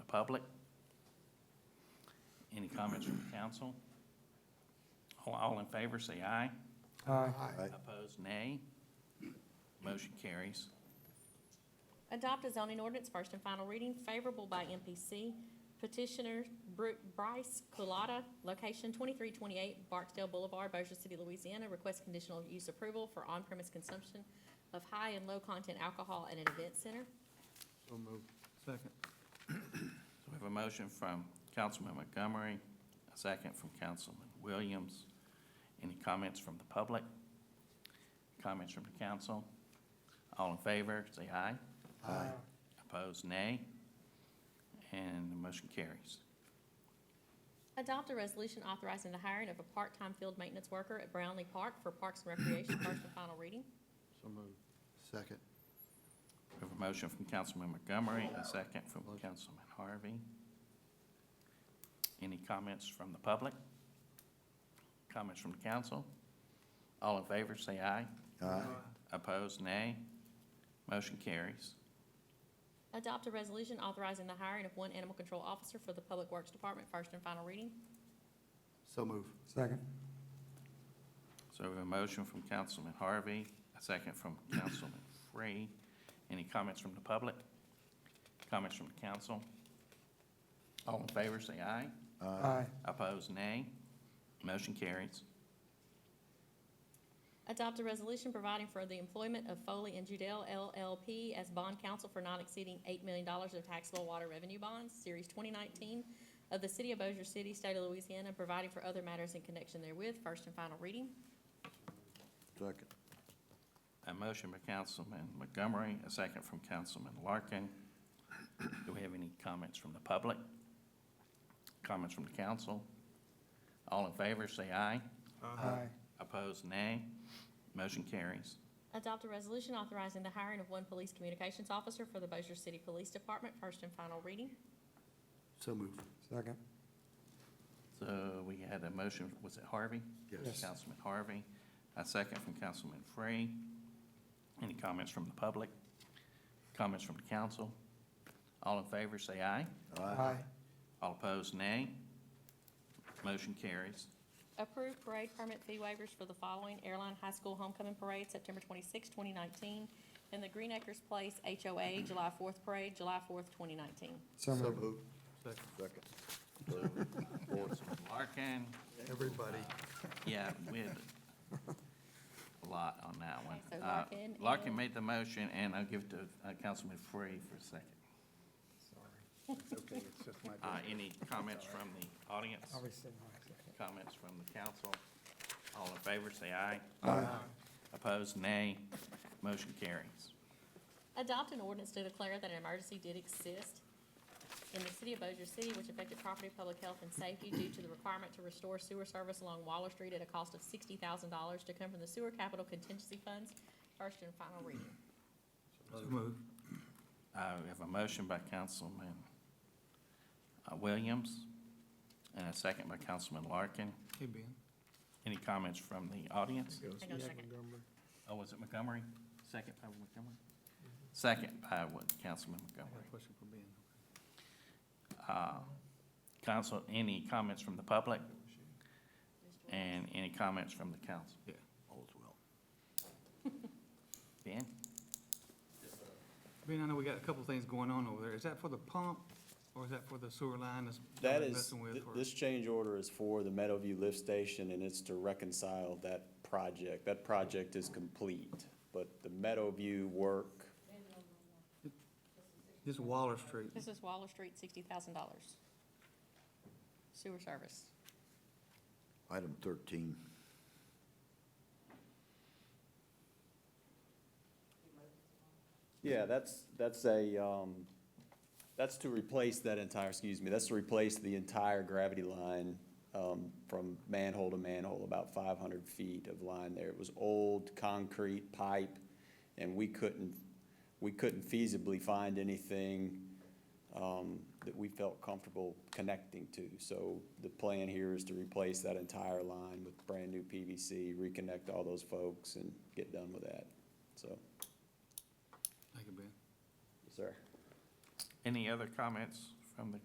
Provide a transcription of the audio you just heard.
public? Any comments from the council? All- All in favor, say aye. Aye. Aye. Opposed, nay. Motion carries. Adopt a zoning ordinance, first and final reading, favorable by MPC. Petitioner Bru- Bryce Culotta, location twenty-three twenty-eight Barksdale Boulevard, Bossier City, Louisiana. Request conditional use approval for on-premise consumption of high and low-content alcohol at an event center. So moved. Second. So we have a motion from Councilman Montgomery, a second from Councilman Williams. Any comments from the public? Comments from the council? All in favor, say aye. Aye. Opposed, nay. And the motion carries. Adopt a resolution authorizing the hiring of a part-time field maintenance worker at Brownlee Park for Parks and Recreation, first and final reading. So moved. Second. We have a motion from Councilman Montgomery, a second from Councilman Harvey. Any comments from the public? Comments from the council? All in favor, say aye. Aye. Opposed, nay. Motion carries. Adopt a resolution authorizing the hiring of one animal control officer for the Public Works Department, first and final reading. So moved. Second. So we have a motion from Councilman Harvey, a second from Councilman Free. Any comments from the public? Comments from the council? All in favor, say aye. Aye. Opposed, nay. Motion carries. Adopt a resolution providing for the employment of Foley and Judell LLP as bond counsel for not exceeding eight million dollars of taxable water revenue bonds, Series twenty nineteen of the City of Bossier City, State of Louisiana, providing for other matters in connection therewith, first and final reading. Second. A motion by Councilman Montgomery, a second from Councilman Larkin. Do we have any comments from the public? Comments from the council? All in favor, say aye. Aye. Opposed, nay. Motion carries. Adopt a resolution authorizing the hiring of one police communications officer for the Bossier City Police Department, first and final reading. So moved. Second. So we had a motion, was it Harvey? Yes. Councilman Harvey, a second from Councilman Free. Any comments from the public? Comments from the council? All in favor, say aye. Aye. All opposed, nay. Motion carries. Approve parade permit fee waivers for the following airline high school homecoming parade, September 26, twenty nineteen, and the Green Acres Place HOA July fourth parade, July fourth, twenty nineteen. So moved. Second. Councilman Larkin, Everybody. yeah, we had a lot on that one. Okay, so Uh, Larkin Larkin and- made the motion, and I'll give it to uh, Councilman Free for a second. Okay, it's just my. Uh, Any comments from the audience? Obviously, aye. Comments from the council? All in favor, say aye. Aye. Opposed, nay. Motion carries. Adopt an ordinance to declare that an emergency did exist in the city of Bossier City which affected property, public health, and safety due to the requirement to restore sewer service along Waller Street at a cost of sixty thousand dollars to come from the sewer capital contingency funds, first and final reading. Uh, We have a motion by Councilman uh, Williams and a second by Councilman Larkin. Hey, Ben. Any comments from the audience? Hang on a second. Oh, was it Montgomery? Second by Montgomery? Second by what, Councilman Montgomery. question for Ben. Uh, Council, any comments from the public? And any comments from the council? Yeah. All's well. Ben? Ben, I know we got a couple things going on over there. Is that for the pump or is that for the sewer line that's That that's is, messing with? th- or- this change order is for the Meadowview Lift Station, and it's to reconcile that project. That project is complete, but the Meadowview work, This is Waller Street. This is Waller Street, sixty thousand dollars. Sewer service. Item thirteen. yeah, that's, that's a, um, that's to replace that entire, excuse me, that's to replace the entire gravity line, um, from manhole to manhole, about five hundred feet of line there. It was old concrete pipe, and we couldn't, we couldn't feasibly find anything, um, that we felt comfortable connecting to. So the plan here is to replace that entire line with brand-new PVC, reconnect all those folks, and get done with that, so, Thank you, Ben. yes, sir. Any other comments from the